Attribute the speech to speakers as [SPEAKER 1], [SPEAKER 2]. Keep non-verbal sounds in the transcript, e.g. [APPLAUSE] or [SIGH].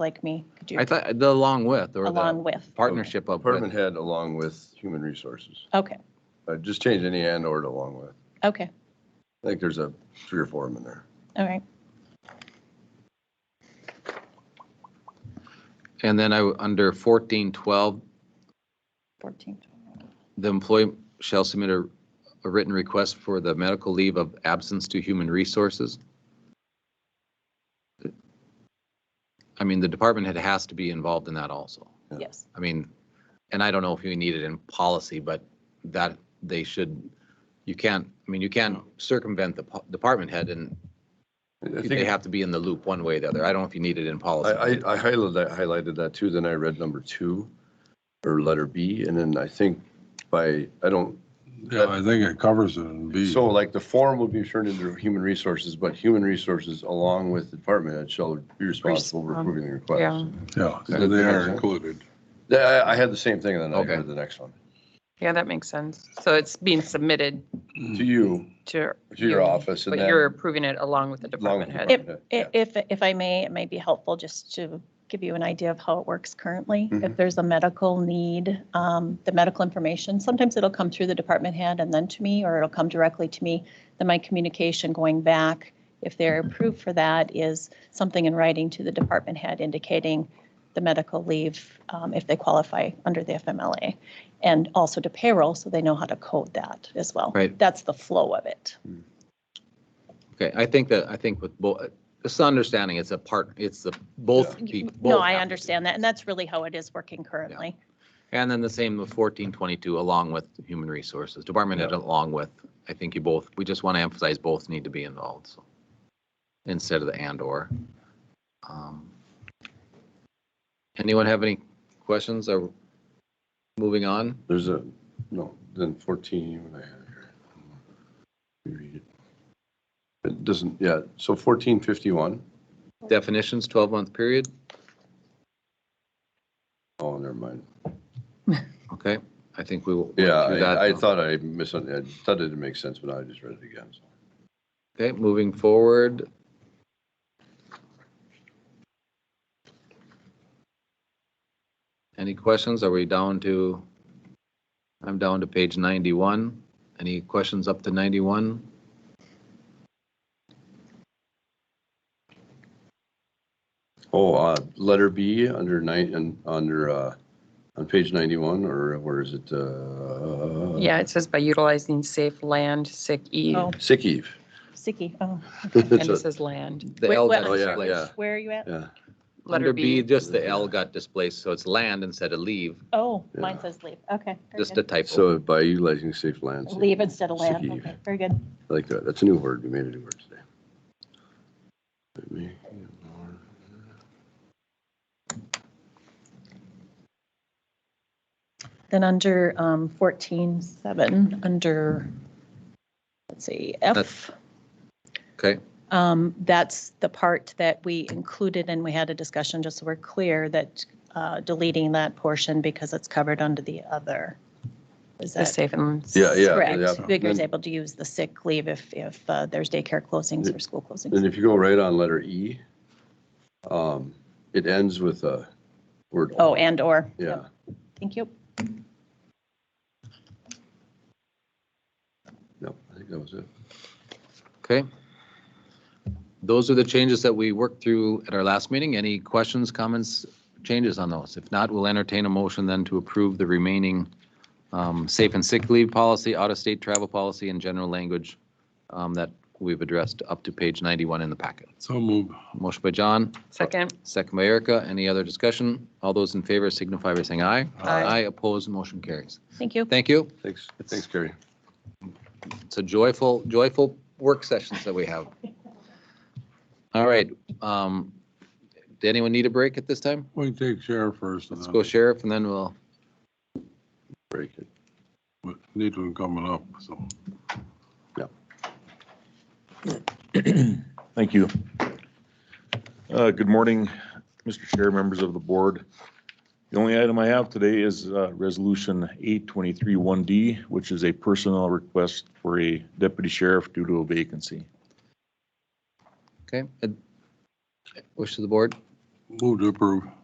[SPEAKER 1] like me could do
[SPEAKER 2] I thought the along with or
[SPEAKER 1] along
[SPEAKER 2] the
[SPEAKER 1] with.
[SPEAKER 2] partnership of. with.
[SPEAKER 3] Department head along with human resources.
[SPEAKER 1] Okay,
[SPEAKER 3] Uh, Just change any and or to along with.
[SPEAKER 1] okay,
[SPEAKER 3] I think there's a three or four of them in there.
[SPEAKER 1] all right.
[SPEAKER 2] And then I, w- under fourteen twelve,
[SPEAKER 1] 14.
[SPEAKER 2] the employee shall submit a, a written request for the medical leave of absence to human resources. I mean, the department head has to be involved in that also.
[SPEAKER 3] Yeah.
[SPEAKER 1] Yes,
[SPEAKER 2] I mean, and I don't know if you need it in policy, but that they should, you can't, I mean, you can't circumvent the po- department head and
[SPEAKER 3] I
[SPEAKER 2] they
[SPEAKER 3] think, I,
[SPEAKER 2] have to be in the loop one way or the other. I don't know if you need it in policy.
[SPEAKER 3] I I highlighted that, highlighted that too, then I read number two or letter B, and then I think by, I don't,
[SPEAKER 4] Yeah, I think it covers it in B.
[SPEAKER 3] so like the form will be turned into human resources, but human resources along with the department head shall be responsible for approving the
[SPEAKER 5] Yeah,
[SPEAKER 3] request.
[SPEAKER 4] Yeah, so they are included.
[SPEAKER 3] Yeah, I, I had the same thing and then I
[SPEAKER 2] Okay.
[SPEAKER 3] heard the next one.
[SPEAKER 5] yeah, that makes sense. So it's being submitted
[SPEAKER 2] Hmm.
[SPEAKER 3] To you,
[SPEAKER 5] to.
[SPEAKER 3] to your
[SPEAKER 5] you,
[SPEAKER 3] office and
[SPEAKER 5] But
[SPEAKER 3] then.
[SPEAKER 5] you're approving it along with the
[SPEAKER 3] along with
[SPEAKER 5] department
[SPEAKER 3] the
[SPEAKER 5] head.
[SPEAKER 3] department head.
[SPEAKER 1] I- if, if I may, it may be helpful just to give you an idea of how it works currently. If
[SPEAKER 3] Mhm.
[SPEAKER 1] there's a medical need, um, the medical information, sometimes it'll come through the department head and then to me, or it'll come directly to me. Then my communication going back, if they're approved for that, is something in writing to the department head indicating the medical leave um, if they qualify under the FMLA. And also to payroll, so they know how to code that as well.
[SPEAKER 2] Right.
[SPEAKER 1] That's the flow of it.
[SPEAKER 2] Okay, I think that, I think with both, it's the understanding, it's a part, it's the both. pe-
[SPEAKER 1] No,
[SPEAKER 2] both
[SPEAKER 1] I
[SPEAKER 2] have to-
[SPEAKER 1] understand that, and that's really how it is working currently.
[SPEAKER 2] And then the same with fourteen twenty-two along with human resources, department head along with, I think you both, we just want to emphasize both need to be involved, so. Instead of the and or. Um, Anyone have any questions or moving on?
[SPEAKER 3] There's a, no, then 14, what I had here. Let me read it. It doesn't, yeah, so 1451,
[SPEAKER 2] Definitions, twelve-month period,
[SPEAKER 3] oh, never mind.
[SPEAKER 2] okay, I think we will. work
[SPEAKER 3] Yeah,
[SPEAKER 2] through that.
[SPEAKER 3] I I thought I misunderstood, I thought it didn't make sense, but I just read it again. so.
[SPEAKER 2] Okay, moving forward. Any questions? Are we down to, I'm down to page 91. Any questions up to 91?
[SPEAKER 3] Oh, uh, letter B under nine, and under, uh, on page 91, or where is it? Uh,
[SPEAKER 5] Yeah, it says by utilizing safe land, sick E,
[SPEAKER 1] Oh,
[SPEAKER 3] Sick Eve.
[SPEAKER 1] Sicky, oh,
[SPEAKER 3] [LAUGHS]
[SPEAKER 5] and it
[SPEAKER 3] It's a-
[SPEAKER 5] says land.
[SPEAKER 2] The
[SPEAKER 1] Wait,
[SPEAKER 2] L
[SPEAKER 1] what-
[SPEAKER 2] got
[SPEAKER 1] Oh,
[SPEAKER 3] yeah,
[SPEAKER 2] displaced.
[SPEAKER 3] yeah.
[SPEAKER 1] where are you at?
[SPEAKER 3] Yeah,
[SPEAKER 2] Under
[SPEAKER 5] Letter
[SPEAKER 2] B,
[SPEAKER 5] B,
[SPEAKER 2] just the L got displaced, so it's land instead of leave,
[SPEAKER 1] Oh,
[SPEAKER 3] Yeah.
[SPEAKER 1] mine says leave, okay. very
[SPEAKER 2] just a
[SPEAKER 1] good.
[SPEAKER 2] typo.
[SPEAKER 3] so by utilizing safe lands, I
[SPEAKER 1] Leave instead of land,
[SPEAKER 3] Sicky.
[SPEAKER 1] okay, very good.
[SPEAKER 3] like that, that's a new word, we made a new word today. Let me-
[SPEAKER 1] Then under um, 14.7, under, let's see, F,
[SPEAKER 2] Okay,
[SPEAKER 1] um, that's the part that we included and we had a discussion, just so we're clear, that uh, deleting that portion because it's covered under the other. Is
[SPEAKER 5] the
[SPEAKER 1] that
[SPEAKER 5] safe and.
[SPEAKER 3] Yeah, yeah. yeah.
[SPEAKER 1] correct? Vigor is
[SPEAKER 3] Then-
[SPEAKER 1] able to use the sick leave if, if uh, there's daycare closings or school closings.
[SPEAKER 3] Then if you go right on letter E, um, it ends with a word.
[SPEAKER 1] Oh, and/or.
[SPEAKER 3] Yeah,
[SPEAKER 1] Thank you.
[SPEAKER 3] no, I think that was it.
[SPEAKER 2] okay. Those are the changes that we worked through at our last meeting. Any questions, comments, changes on those? If not, we'll entertain a motion then to approve the remaining um, safe and sick leave policy, out-of-state travel policy, and general language um, that we've addressed up to page 91 in the packet.
[SPEAKER 4] So move.
[SPEAKER 2] Motion by John,
[SPEAKER 5] Second,
[SPEAKER 2] second by Erica. Any other discussion? All those in favor signify by saying aye.
[SPEAKER 5] Aye.
[SPEAKER 3] Uh,
[SPEAKER 2] Aye, opposed, motion carries.
[SPEAKER 1] Thank you.
[SPEAKER 2] Thank you.
[SPEAKER 3] Thanks, thanks, Gary.
[SPEAKER 2] It's a joyful, joyful work sessions that we have. All right. um, Did anyone need a break at this time?
[SPEAKER 4] We can take sheriff first. and
[SPEAKER 2] Let's
[SPEAKER 4] then
[SPEAKER 2] go sheriff and then we'll,
[SPEAKER 3] Break it.
[SPEAKER 4] we Need one coming up, so.
[SPEAKER 6] Thank you. Uh, Good morning, Mr. Chair, members of the board. The only item I have today is uh, Resolution 823-1D, which is a personnel request for a deputy sheriff due to a vacancy.
[SPEAKER 2] okay. Wish of the board.
[SPEAKER 4] Move to approve.